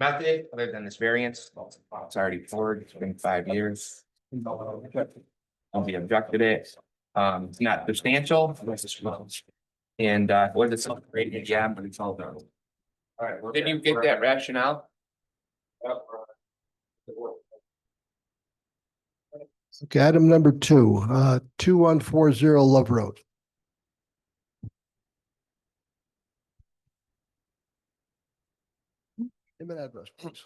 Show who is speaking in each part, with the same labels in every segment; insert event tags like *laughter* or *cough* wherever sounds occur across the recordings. Speaker 1: method, other than this variance, it's already poured, it's been five years. And we objected it, um, it's not substantial. And, uh, what is it, something rated, yeah, but it's all done.
Speaker 2: Alright. we're-
Speaker 1: Did you get that rationale?
Speaker 2: Yep, we're- the board.
Speaker 3: Okay, item number two, uh, two one four zero Love Road. Name and address, please.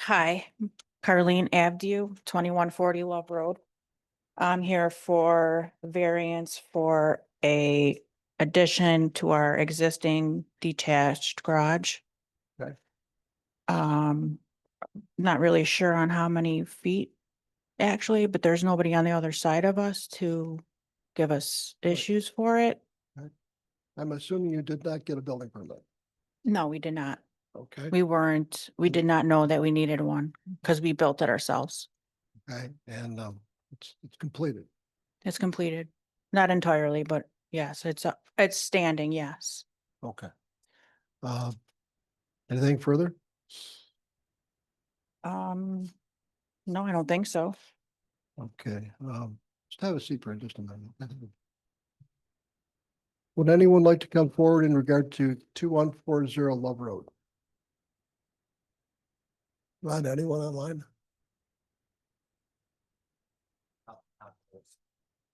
Speaker 4: Hi, Carleen Abdu, twenty-one forty Love Road. I'm here for variance for a addition to our existing detached garage.
Speaker 3: Okay.
Speaker 4: Um, not really sure on how many feet actually, but there's nobody on the other side of us to give us issues for it.
Speaker 3: I'm assuming you did not get a building permit,
Speaker 4: No, we did not.
Speaker 3: okay? Mm-hmm.
Speaker 4: We weren't, we did not know that we needed one because we built it ourselves.
Speaker 3: Okay, and, um, it's, it's completed.
Speaker 4: It's completed, not entirely, but yes, it's up, it's standing, yes.
Speaker 3: Okay. Uh, anything further?
Speaker 4: Um, no, I don't think so.
Speaker 3: Okay, um, just have a seat for just a minute. Would anyone like to come forward in regard to two one four zero Love Road? Not anyone online?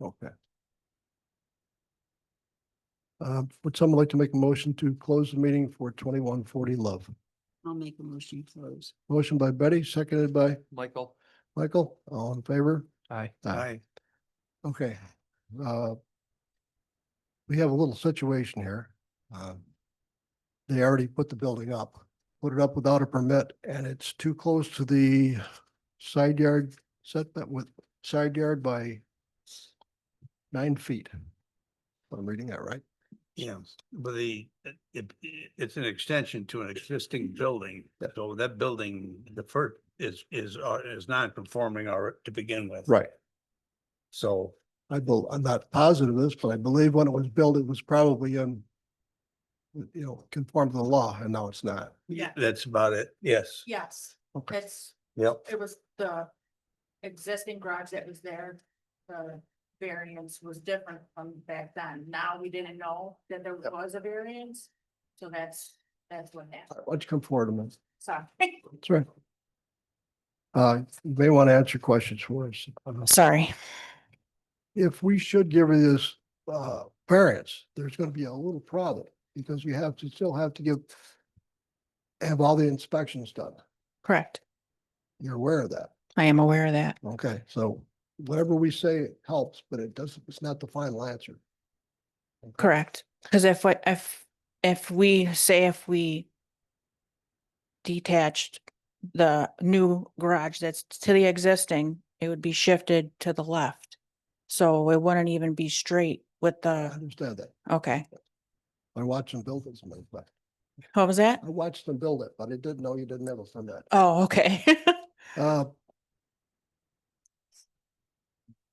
Speaker 3: Okay. Uh, would someone like to make a motion to close the meeting for twenty-one forty Love?
Speaker 5: I'll make a motion to close.
Speaker 3: Motion by Betty, seconded by
Speaker 1: Michael.
Speaker 3: Michael, all in favor?
Speaker 1: Aye.
Speaker 3: Aye. Okay, uh. We have a little situation here. Um, They already put the building up, put it up without a permit and it's too close to the side yard setback with side yard by nine feet. If I'm reading that right?
Speaker 6: Yeah, but the, it, it- it's an extension to an existing building, so that building, the first is, is, uh, is non-conforming or to begin with.
Speaker 3: Right.
Speaker 6: So,
Speaker 3: I bel, I'm not positive of this, but I believe when it was built, it was probably in you know, conformed to the law and now it's not.
Speaker 5: Yeah.
Speaker 6: that's about it, yes.
Speaker 5: Yes,
Speaker 3: Okay.
Speaker 5: it's,
Speaker 6: Yep.
Speaker 5: it was the existing garage that was there. The variance was different from back then. Now we didn't know that there
Speaker 3: Yep.
Speaker 5: was a variance. So that's, that's what happened.
Speaker 3: Why don't you come forward a minute?
Speaker 5: Sorry.
Speaker 3: That's right. Uh, you may want to answer questions for us.
Speaker 4: Sorry.
Speaker 3: If we should give her this, uh, variance, there's going to be a little problem because you have to still have to give, have all the inspections done.
Speaker 4: Correct.
Speaker 3: You're aware of that.
Speaker 4: I am aware of that.
Speaker 3: Okay, so whatever we say helps, but it doesn't, it's not the final answer.
Speaker 4: Correct. Because if, what if, if we say if we detached the new garage that's to the existing, it would be shifted to the left. So it wouldn't even be straight with
Speaker 3: I
Speaker 4: the,
Speaker 3: understand that.
Speaker 4: okay.
Speaker 3: I watched them build this, man, but
Speaker 4: What was that?
Speaker 3: I watched them build it, but I didn't know you didn't have a permit.
Speaker 4: Oh, okay. *laughs*
Speaker 3: Uh,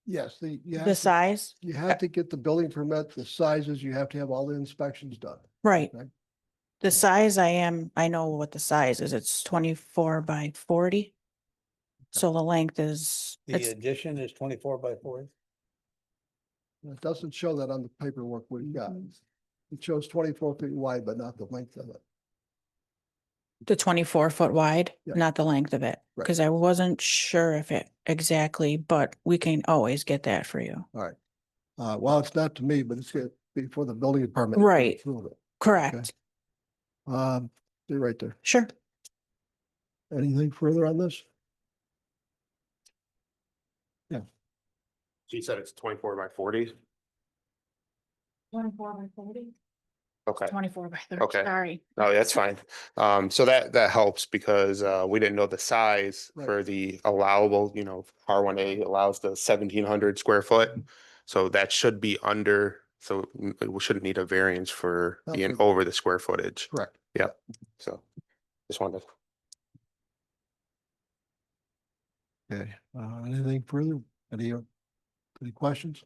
Speaker 3: Yes, the, you
Speaker 4: The
Speaker 3: have to
Speaker 4: size?
Speaker 3: You have to get the building permit, the sizes, you have to have all the inspections done.
Speaker 4: Right.
Speaker 3: Okay.
Speaker 4: The size I am, I know what the size is. It's twenty-four by forty. So the length is,
Speaker 6: The
Speaker 3: uh,
Speaker 4: it's,
Speaker 6: addition is twenty-four by forty?
Speaker 3: And It doesn't show that on the paperwork we've got.
Speaker 4: Mm-hmm.
Speaker 3: It shows twenty-four feet wide, but not the length of it.
Speaker 4: the twenty-four foot wide,
Speaker 3: Yeah.
Speaker 4: not the length of it.
Speaker 3: Right.
Speaker 4: Cause I wasn't sure if it exactly, but we can always get that for you.
Speaker 3: Uh, well, it's not to me, but it's gonna be for the building department. to
Speaker 4: Right.
Speaker 3: approve it.
Speaker 4: Correct.
Speaker 3: Um, they're right there.
Speaker 4: Sure.
Speaker 3: Anything further on this?
Speaker 2: She said it's twenty-four by forty.
Speaker 4: Twenty-four by forty?
Speaker 2: Okay,
Speaker 4: Twenty-four by
Speaker 2: Okay.
Speaker 4: thirty, sorry.
Speaker 2: no, that's fine. Um, so that, that helps because, uh, we didn't know the size
Speaker 3: Right.
Speaker 2: for the allowable, you know, R one A allows the seventeen hundred square foot. So that should be under, so mm, we shouldn't need a variance for
Speaker 3: Not
Speaker 2: being
Speaker 3: for-
Speaker 2: over the square footage.
Speaker 3: Correct.
Speaker 2: So just wanted to
Speaker 3: Okay, uh, anything further? Any, uh, any questions?